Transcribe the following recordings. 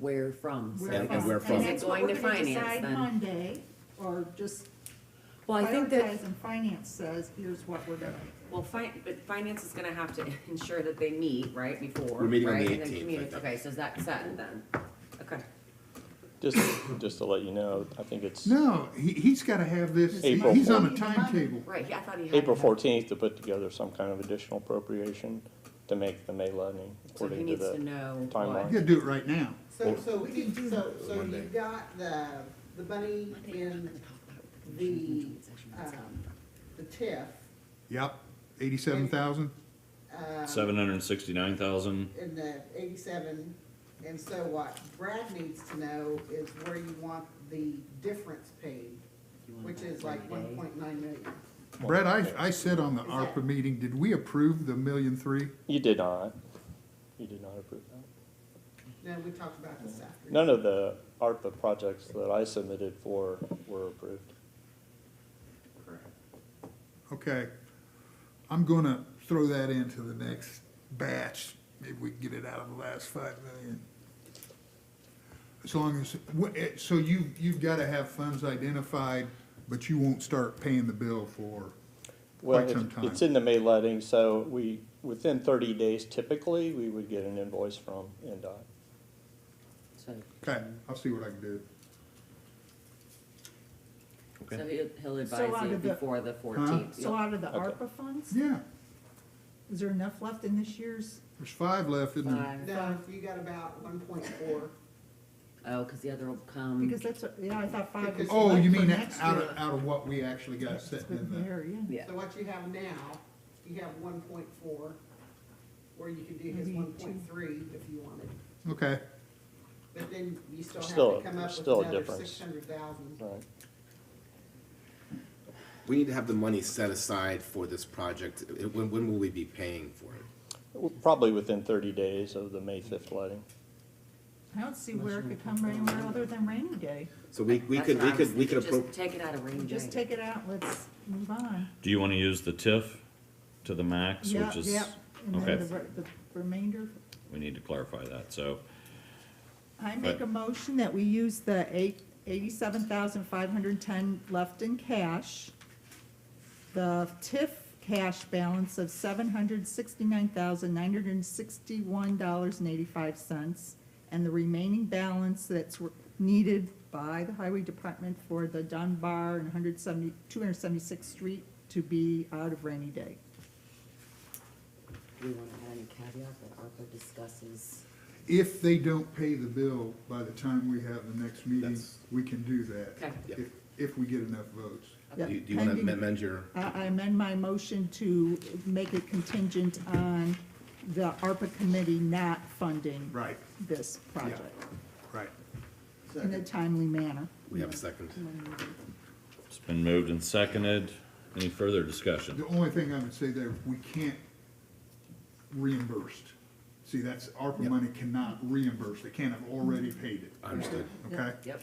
where from, so. Where I guess- from. where And from. Is that's it what going we're to gonna finance decide then? Monday, or just Well, I think that, prioritize and finance says, here's what we're gonna. well, fi- but finance is gonna have to ensure that they meet, right, before, We're meeting on right? the And then 18th, I communi- think. Okay, so is that set then? Okay. Just, just to let you know, I think it's No, he, he's gotta have this, he- April he's on a fourth. timetable. Right, yeah, I thought he had. April that. fourteenth to put together some kind of additional appropriation to make the May So levy he according to needs to the. know timeline. You what. gotta do it right now. So, so we can do so, so Monday. you've got the, the money in the, um, the TIF. Yep, eighty-seven thousand, uh, Seven hundred and sixty-nine thousand, In the eighty-seven, and so what Brad needs to know is where you want the difference paid, which is like one point nine million. Brett, I, I said on the Is that- ARPA meeting, did we approve the million three? You did not, you did not approve that. No, we talked about this after. None of the ARPA projects that I submitted for were approved. Okay, I'm gonna throw that into the next batch, maybe we can get it out of the last five million. As long as, wh- eh, so you, you've gotta have funds identified, but you won't start paying the bill for Well, quite some it's- time. it's in the May letting, so we, within thirty days typically, we would get an invoice from NDOT. So uh, Okay, I'll see what I can do. so he'll, he'll advise out you of the- before the fourteenth. So out of the Okay. ARPA funds, Yeah, is there enough left in this year's? there's five left, isn't there? No, you got about one point four. Oh, cause the other will come. Because that's, what- yeah, I thought five was. Oh, left you for mean next out year. of, out of what we actually got sitting But in there, yeah. Yeah, So what you have now, you have one point four, or you could do his Maybe two. one point three if you wanted. the, okay, But then you still Still- have to come up with still a another difference. six hundred thousand. Right. We need to have the money set aside for this project. It- When, when will we be paying for it? Well, Probably within thirty days of the May fifth letting. I don't see where it could come anywhere other than rainy day. So we, we that's could, what we I was could, we could thinking, appro, Just take it out of rainy day. Just take it out, let's move on. do you wanna use the TIF to the max, Yeah, which is, yeah. And then okay. the re- the remainder, we need to clarify that, so. I make Right. a motion that we use the eight, eighty-seven thousand five hundred and ten left in cash, the TIF cash balance of seven hundred sixty-nine thousand nine hundred and sixty-one dollars and eighty-five cents, and the remaining balance that's re- needed by the highway department for the Dunbar and 170 276th street to be out of rainy day. Do we wanna add any caveat that ARPA discusses? if they don't pay the bill by the time we have the next meeting, That's- we can do that. Okay. Yep. If, if we get enough votes. Yeah, do you- do you want pending- to amend your? I I amend my motion to make it contingent on the ARPA committee not funding Right, this project right. in a timely manner. We have a second. It's been moved and seconded, any further discussion? The only thing I would say there, we can't reimburse. See, that's, ARPA money cannot reimburse, they can't have already Mm-hmm. paid it, Understood. okay? Yep.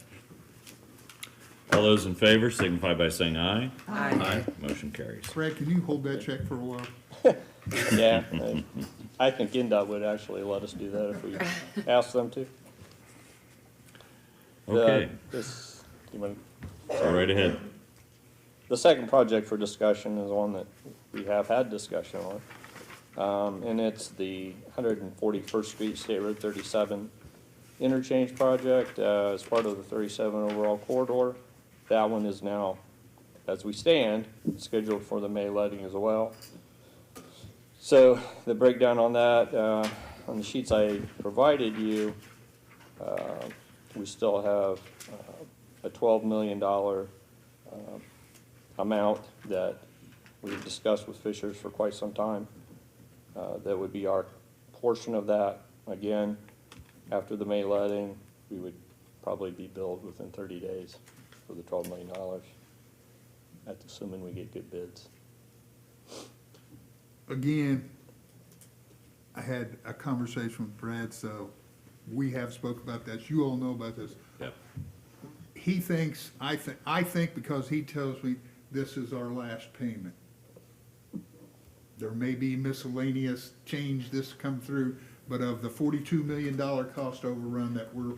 All those in favor signify by saying aye. Aye. Motion carries. Brad, can you hold that check for a while? Yeah, I- I think NDOT would actually let us do that if we asked them to. The- Okay, This, you want- go right ahead. the second project for discussion is one that we have had discussion on. Um, and it's the hundred and forty-first Street State Road thirty-seven interchange project, uh, as part of the thirty-seven overall corridor. That one is now, as we stand, scheduled for the May letting as well. So the breakdown on that, uh, on the sheets I provided you, uh, we still have uh, a twelve million dollar amount that we've discussed with Fishers for quite some time. Uh, That would be our portion of that. Again, after the May letting, we would probably be billed within 30 days for the $12 million. That's assuming we get good bids. again, I had a conversation with Brad, so we have spoke about this, you all know about this. Yep. He thinks, I think, I think because he tells me this is our last payment. There may be miscellaneous change this come through, but of the forty-two million dollar cost overrun that we're